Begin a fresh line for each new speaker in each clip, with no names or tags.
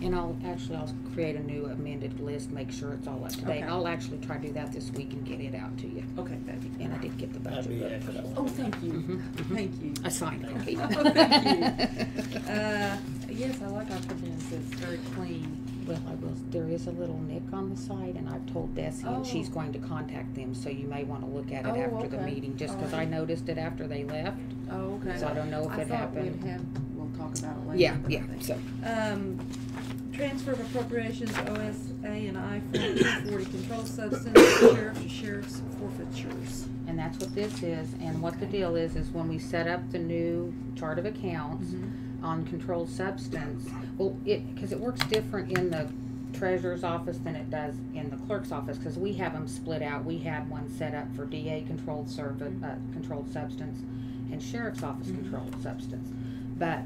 And I'll, actually, I'll create a new amended list, make sure it's all up to date.
Okay.
And I'll actually try to do that this week and get it out to you.
Okay, that'd be
And I did get the
That'd be
budget book.
excellent.
Oh, thank you,
Mhm, mhm.
thank you.
A signed copy.
Oh, thank Uh, yes, I like our pavilions, it's very clean.
Well, I will, there is a little nick on the side and I've told Bessie and she's
Oh.
going to contact them, so you may wanna look at it
Oh,
after the
okay.
meeting, just cause I
Alright.
noticed it after they left,
Oh, okay.
so I don't know if
I
it
thought we'd
happened.
have, we'll talk about it later.
Yeah,
but I
yeah,
think-
so,
Um, transfer of appropriations, OSA and I forty, control substance, sheriff to sheriff's forfeitures.
and that's what this is, and what the deal is, is when we set up the new chart of accounts on controlled substance, well, it, cause it works different in the treasurer's office than it does in the clerk's office, cause we have them split out, we had one set up for DA controlled service, uh, controlled substance and sheriff's office
Mhm.
controlled substance. But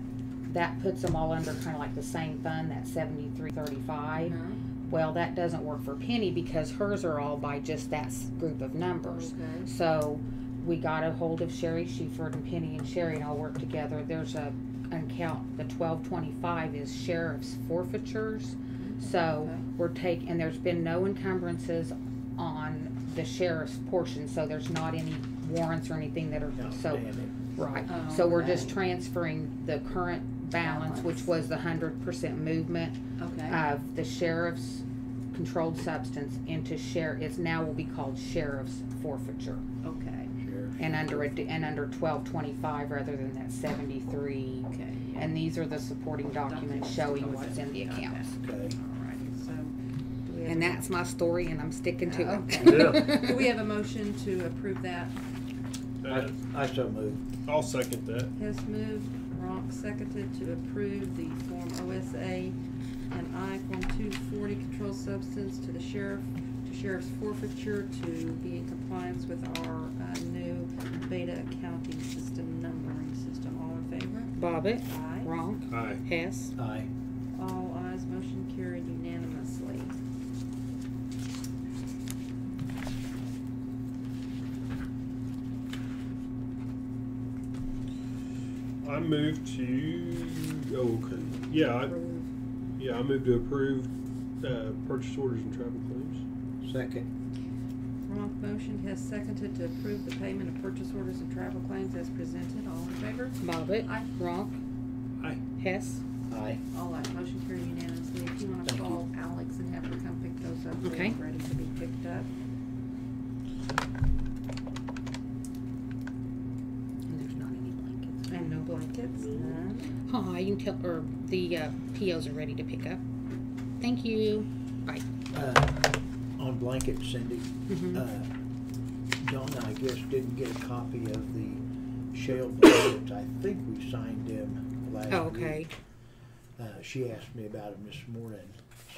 that puts them all under kind of like the same fund, that seventy-three thirty-five.
Uh-huh.
Well, that doesn't work for Penny because hers are all by just that s- group of numbers.
Okay.
So we got a hold of Sherry Sheford and Penny and Sherry and all work together. There's a, an account, the twelve twenty-five is sheriff's forfeitures. So
Mm-hmm. Okay.
we're taking, and there's been no encumbrances on the sheriff's portion, so there's not any warrants or anything that are, so,
Outstanding.
right.
Oh,
So we're just
okay.
transferring the current balance, which
Balance.
was the hundred percent movement
Okay.
of the sheriff's controlled substance into share, it's now will be called sheriff's forfeiture.
Okay.
Sheriff.
And under, a d- and under twelve twenty-five rather than that seventy-three.
Okay.
And these are the supporting documents showing what's in the accounts.
Okay.
Alrighty, so. do we have- Uh,
And that's my story, and I'm sticking to
Okay.
Oh, Do
it.
we have a motion to approve that?
I, I so move.
I'll second that.
Hess moved, Ronk seconded to approve the Form OSA and I Form two forty controlled substance to the sheriff, to sheriff's forfeiture to be in compliance with our, uh, new beta accounting system numbering system. All in favor?
Bobbit,
Aye.
Ronk,
Aye.
Hess.
Aye.
All ayes, motion carried unanimously.
I move to, oh, okay. Yeah, I,
Approve.
yeah, I move to approve, uh, purchase orders and travel claims.
Second.
Ronk motion, Hess seconded to approve the payment of purchase orders and travel claims as presented. All in favor?
Bobbit,
Aye.
Ronk,
Aye.
Hess.
Aye.
All right, motion carried unanimously. If you want to
Thank you.
call Alex and have her come pick those up,
Okay.
they're ready to be picked up.
And there's not any blankets.
And no blankets, none.
Aw, you can tell, or the uh, POs are ready to pick up. Thank you. Bye.
Uh, on blanket, Cindy,
Mhm.
uh, John, I guess, didn't get a copy of the shale blankets. I think we signed them last week.
Oh, okay.
Uh, she asked me about them this morning.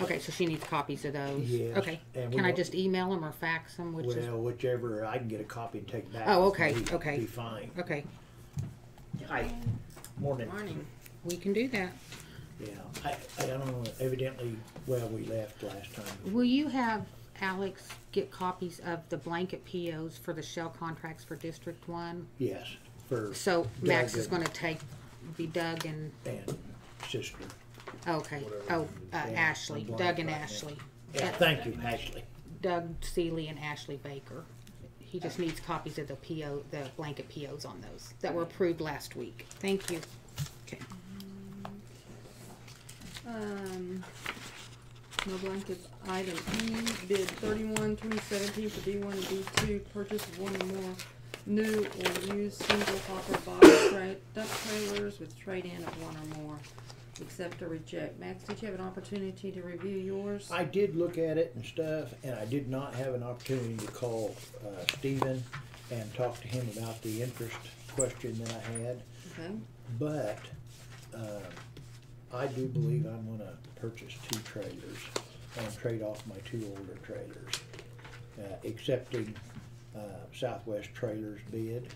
Okay, so she needs copies of those.
Yes,
Okay.
and we
Can I
want-
just email them or fax them, which is,
Well, whichever, I can get a copy and take back.
Oh,
with
okay,
me,
okay.
Be fine.
okay,
Hi. Morning.
Morning.
we can do that.
Yeah, I, I don't know, evidently, well, we left last time.
Will you have Alex get copies of the blanket POs for the shell contracts for District One?
Yes, for
So Max
Doug
is
and-
gonna take, be Doug and,
and sister.
okay, oh, uh, Ashley,
I'm blank
Doug and
right now.
Ashley.
Yeah, thank you, Ashley.
Doug Seeley and Ashley Baker. He just needs copies of the PO, the blanket POs on those that were approved last week. Thank you. Okay.
Um, no blankets. Item E, bid thirty-one, twenty seventeen for B one and B two, purchase of one or more new or used single hopper box tra- dump trailers with trade-in of one or more. Accept or reject. Max, did you have an opportunity to review yours?
I did look at it and stuff, and I did not have an opportunity to call, uh, Stephen and talk to him about the interest question that I had.
Okay,
But, uh, I do believe I'm gonna purchase two trailers and trade off my two older trailers. Uh, accepting, uh, Southwest Trailers bid.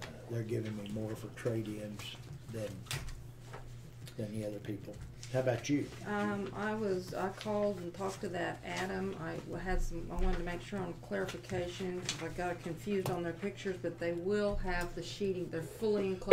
Uh, They're giving me more for trade-ins than, than the other people. How about you?
um, I was, I called and talked to that Adam, I had some, I wanted to make sure on clarification, 'cause I got confused on their pictures, but they will have the sheeting, they're fully enclosed